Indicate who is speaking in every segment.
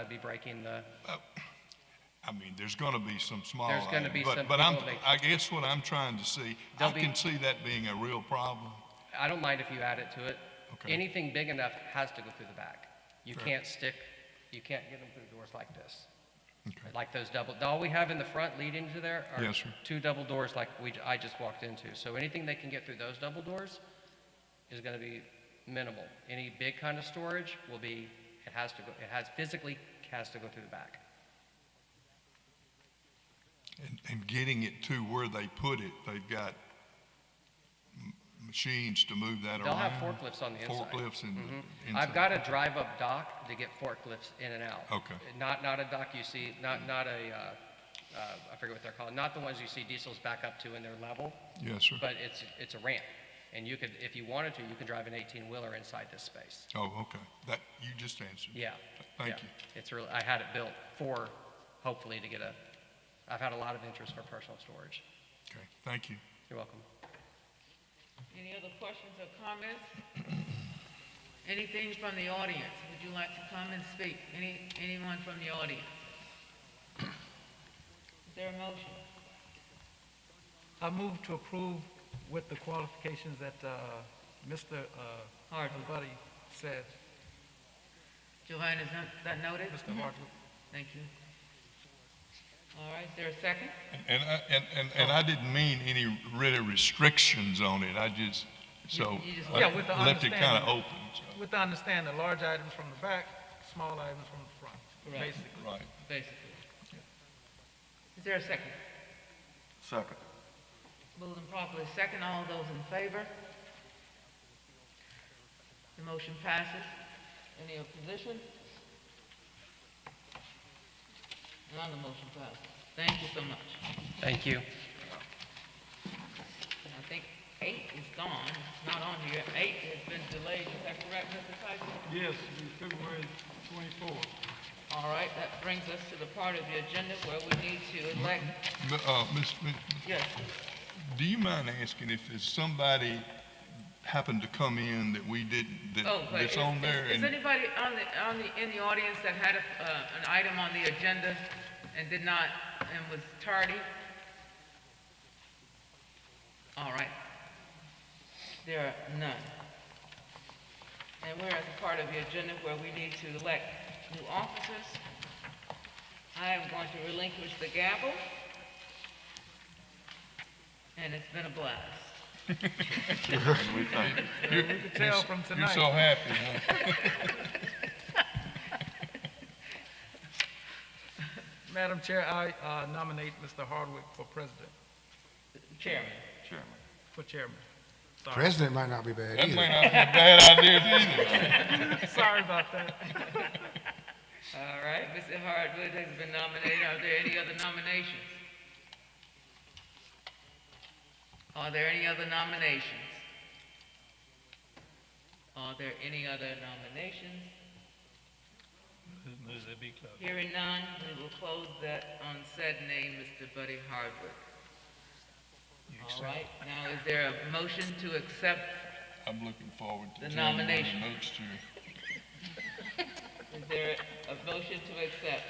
Speaker 1: That'd be breaking the,
Speaker 2: I mean, there's going to be some small.
Speaker 1: There's gonna
Speaker 2: items,
Speaker 1: be
Speaker 2: but-
Speaker 1: some
Speaker 2: But I'm,
Speaker 1: people that-
Speaker 2: I guess what I'm trying to see, I
Speaker 1: There'll be-
Speaker 2: can see that being a real problem.
Speaker 1: I don't mind if you add it to it.
Speaker 2: Okay.
Speaker 1: Anything big enough has to go through the back. You
Speaker 2: Fair.
Speaker 1: can't stick, you can't get them through doors like this,
Speaker 2: Okay.
Speaker 1: like those double, all we have in the front leading to there are
Speaker 2: Yes, sir.
Speaker 1: two double doors like we, I just walked into. So anything they can get through those double doors is gonna be minimal. Any big kind of storage will be, it has to go, it has, physically has to go through the back.
Speaker 2: And, and getting it to where they put it, they've got m- machines to move that around.
Speaker 1: They'll have forklifts on the inside. Mm-hmm.
Speaker 2: Forklifts in the inside.
Speaker 1: I've got a drive-up dock to get forklifts in and out.
Speaker 2: Okay.
Speaker 1: Not, not a dock you see, not, not a, uh, uh, I forget what they're called, not the ones you see diesels back up to in their level,
Speaker 2: Yes, sir.
Speaker 1: but it's, it's a ramp. And you could, if you wanted to, you could drive an 18-wheeler inside this space.
Speaker 2: Oh, okay. That, you just answered.
Speaker 1: Yeah.
Speaker 2: Thank
Speaker 1: yeah.
Speaker 2: you.
Speaker 1: It's really, I had it built for, hopefully, to get a, I've had a lot of interest for personal storage.
Speaker 2: Okay, thank you.
Speaker 1: You're welcome.
Speaker 3: Any other questions or comments? Anything from the audience? Would you like to come and speak? Any, anyone from the audience? Is there a motion?
Speaker 4: I move to approve with the qualifications that uh, Mr. uh,
Speaker 3: Hardwick.
Speaker 4: Buddy said,
Speaker 3: Joanne, is that- that noted?
Speaker 4: Mr. Hartley.
Speaker 3: Thank you. All right, is there a second?
Speaker 2: And, I- and, and, and I didn't mean any really restrictions on it. I just, so.
Speaker 3: you just-
Speaker 2: I
Speaker 4: Yeah, with the
Speaker 2: Left it kind of
Speaker 4: understanding.
Speaker 2: open, so,
Speaker 4: With the understanding, large items from the back, small items from the front,
Speaker 3: Correct.
Speaker 4: basically.
Speaker 2: right.
Speaker 3: Basically. Is there a second?
Speaker 5: Second.
Speaker 3: Moved and properly second, all those in favor? The motion passes. Any opposition? None, the motion passes. Thank you so much.
Speaker 1: Thank you.
Speaker 3: I think eight is gone, it's not on here. Eight has been delayed, is that correct, Mr. Tyson?
Speaker 6: Yes, it'll be February twenty-fourth.
Speaker 3: All right, that brings us to the part of the agenda where we need to elect,
Speaker 2: M- Uh, Ms. Ms-
Speaker 3: yes,
Speaker 2: Do you mind asking if there's somebody happened to come in that we didn't, that,
Speaker 3: Oh, but
Speaker 2: that's
Speaker 3: is-
Speaker 2: on there?
Speaker 3: Is is
Speaker 2: and-
Speaker 3: anybody on the, on the, in the audience that had a, uh, an item on the agenda and did not, and was tardy? All right. There are none. And we're at the part of the agenda where we need to elect new officers. I am going to relinquish the gavel. And it's been a blast.
Speaker 5: We thank you.
Speaker 2: You're-
Speaker 4: We could tell
Speaker 2: you're-
Speaker 4: from
Speaker 2: You're
Speaker 4: tonight.
Speaker 2: so happy, huh?
Speaker 4: Madam Chair, I uh, nominate Mr. Hardwick for president,
Speaker 3: Chairman.
Speaker 5: Chairman.
Speaker 4: for chairman. Sorry,
Speaker 7: President might not be bad
Speaker 2: That
Speaker 7: either.
Speaker 2: may not be a bad idea either.
Speaker 4: sorry about that.
Speaker 3: All right, Mr. Hardwood has been nominated. Are there any other nominations? Are there any other nominations? Are there any other nominations?
Speaker 6: Move that be closed.
Speaker 3: Hearing none, we will close that on said name, Mr. Buddy Hardwood. All right, now is there a motion to accept?
Speaker 2: I'm looking forward to
Speaker 3: The
Speaker 2: January
Speaker 3: nomination.
Speaker 2: next year.
Speaker 3: Is there a motion to accept?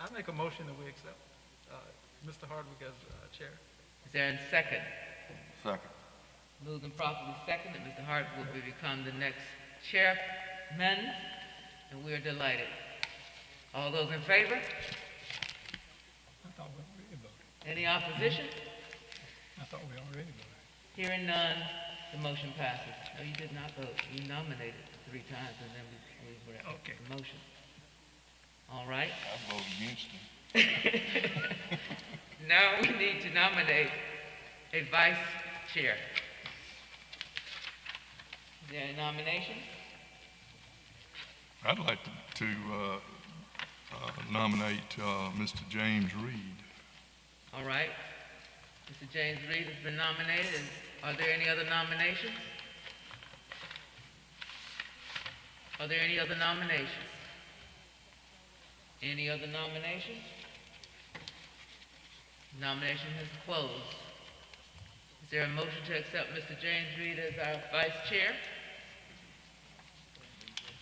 Speaker 4: I make a motion that we accept uh, Mr. Hardwick as uh, chair.
Speaker 3: Is there a second?
Speaker 5: Second.
Speaker 3: Moved and properly seconded, Mr. Hart will be- become the next chairman, and we're delighted. All those in favor?
Speaker 6: I thought we already voted.
Speaker 3: Any opposition?
Speaker 6: I thought we already voted.
Speaker 3: Hearing none, the motion passes. No, you did not vote, you nominated three times, and then we, we were at
Speaker 6: Okay.
Speaker 3: the motion. All right,
Speaker 2: I vote against it.
Speaker 3: now we need to nominate a vice chair. Is there a nomination?
Speaker 2: I'd like to, to uh, uh, nominate uh, Mr. James Reed.
Speaker 3: All right. Mr. James Reed has been nominated. and Are there any other nominations? Are there any other nominations? Any other nominations? Nomination has closed. Is there a motion to accept Mr. James Reed as our vice chair?